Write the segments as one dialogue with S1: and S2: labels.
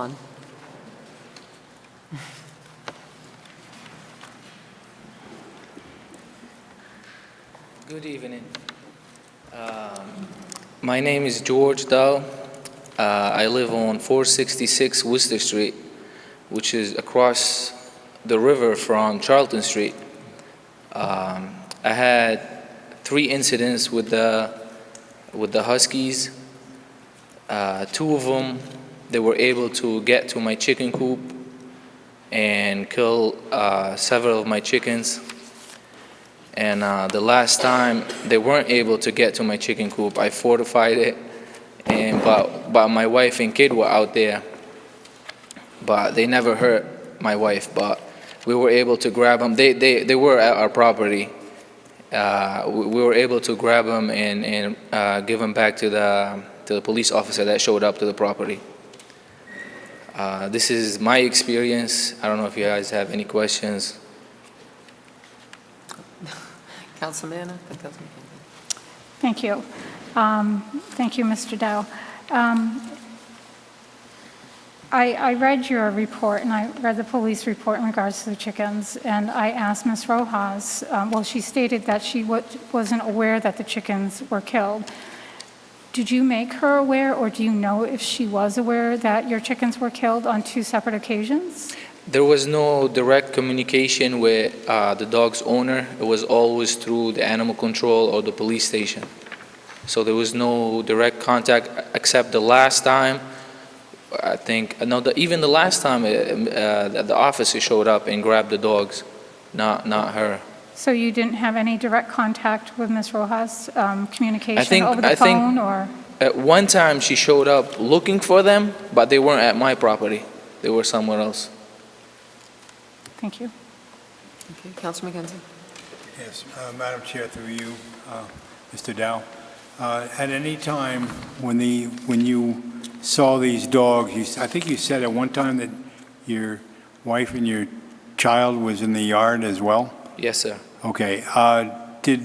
S1: on.
S2: Good evening. Um, My name is George Dow. Uh, I live on 466 Worcester Street, which is across the river from Charlton Street. Um, I had three incidents with the, with the Huskies. Uh, Two of them, they were able to get to my chicken coop and kill uh, several of my chickens. And uh, the last time they weren't able to get to my chicken coop, I fortified it. And but but my wife and kid were out there. But they never hurt my wife. But we were able to grab them. They they they were at our property. Uh, we, we were able to grab them and and uh, give them back to the to the police officer that showed up to the property. Uh, this is my experience. I don't know if you guys have any questions.
S1: Councilman, Anna? Uh, Councilman Kennedy?
S3: Thank you. Um, Thank you, Mr. Dow. Um, I I read your report, and I read the police report in regards to the chickens, and I asked Ms. Rojas, um, well, she stated that she wa- wasn't aware that the chickens were killed. Did you make her aware, or do you know if she was aware that your chickens were killed on two separate occasions?
S2: There was no direct communication with uh, the dog's owner. It was always through the animal control or the police station. So there was no direct contact except the last time. I think uh, no, the, even the last time uh, uh, the the officer showed up and grabbed the dogs, not not her.
S3: So you didn't have any direct contact with Ms. Rojas, um, communication
S2: think-
S3: over the
S2: I think-
S3: phone, or?
S2: At one time, she showed up looking for them, but they weren't at my property. They were somewhere else.
S3: Thank you.
S1: Okay, Councilman Kenzie?
S4: Yes, uh, Madam Chair, through you, uh, Mr. Dow. Uh, At any time when the, when you saw these dogs, you, s- I think you said at one time that your wife and your child was in the yard as well?
S2: Yes, sir.
S4: Okay, uh, did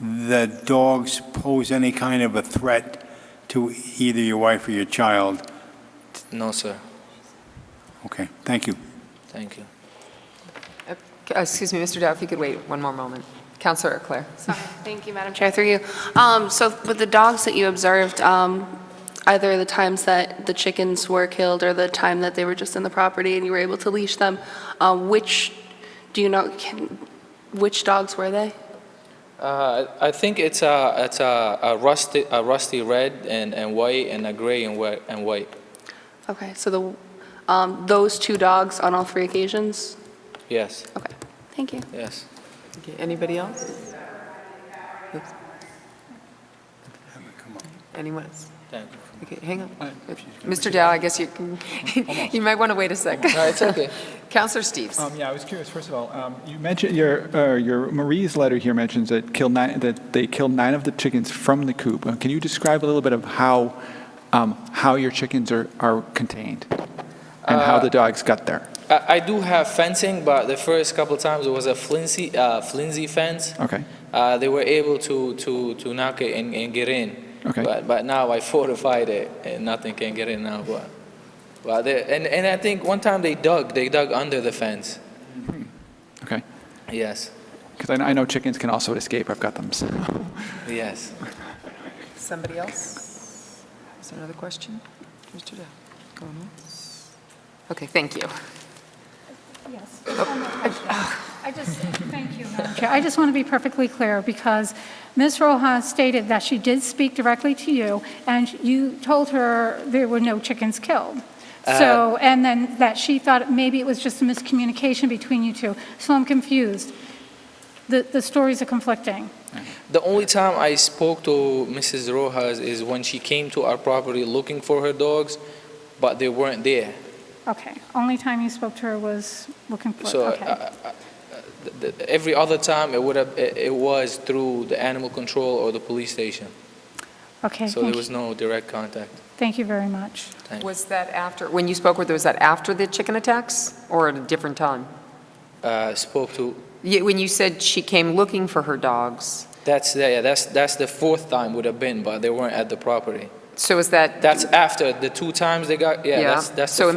S4: the dogs pose any kind of a threat to either your wife or your child?
S2: No, sir.
S4: Okay, thank you.
S2: Thank you.
S1: Uh, Excuse me, Mr. Dow, if you could wait one more moment. Councilor Eclair?
S5: Sorry. Thank you, Madam Chair, through you. Um, So with the dogs that you observed, um, either the times that the chickens were killed or the time that they were just in the property and you were able to leash them, uh, which, do you know, can- which dogs were they?
S2: Uh, I I think it's a, it's a a rusty, a rusty red and, and white and a gray and white, and white.
S5: Okay, so the, um, those two dogs on all three occasions?
S2: Yes,
S5: Okay, thank you.
S2: yes.
S1: Okay, Anybody else? Oops, Anyone else?
S2: Thank you.
S1: Okay, hang on. Mr. Dow, I guess you, can- you might want to wait a second.
S2: No, it's okay.
S1: Counselor Steves?
S6: Um, yeah, I was curious. First of all, um, you mentioned your uh, your Marie's letter here mentions that killed nine that they killed nine of the chickens from the coop. Uh, Can you describe a little bit of how um, how your chickens are, are contained and how the dogs got there?
S2: I, I do have fencing, but the first couple times it was a flimsy, uh, flimsy fence.
S6: Okay.
S2: Uh, they were able to, to, to knock it and, and get in.
S6: Okay.
S2: But, but now I fortified it and nothing can get in now, but, but they, and, and I think one time they dug, they dug under the fence.
S6: Okay.
S2: Yes,
S6: Because I, I know chickens can also escape. I've got them. so-
S2: yes.
S1: Somebody else? Is there another question? Mr. Dow? Going once? Okay, thank you.
S3: Yes.
S2: Uh,
S3: I just, thank you, Madam Chair. I just want to be perfectly clear, because Ms. Rojas stated that she did speak directly to you, and you told her there were no chickens killed.
S2: Uh,
S3: So, and then that she thought maybe it was just a miscommunication between you two. So I'm confused. The, the stories are conflicting.
S2: The only time I spoke to Mrs. Rojas is when she came to our property looking for her dogs, but they weren't there.
S3: Okay, only time you spoke to her was looking for,
S2: So
S3: okay.
S2: uh, uh, th- th- every other time it would have, it it was through the animal control or the police station.
S3: Okay,
S2: So there
S3: thank
S2: was
S3: you,
S2: no direct contact.
S3: thank you very much.
S2: Thank you.
S1: Was that after, when you spoke with her, was that after the chicken attacks or at a different time?
S2: Uh, Spoke to,
S1: Yeah, When you said she came looking for her dogs,
S2: that's, the- yeah, that's, that's the fourth time would have been, but they weren't at the property.
S1: so is that
S2: That's after the two times they got, yeah, that's, that's the
S1: So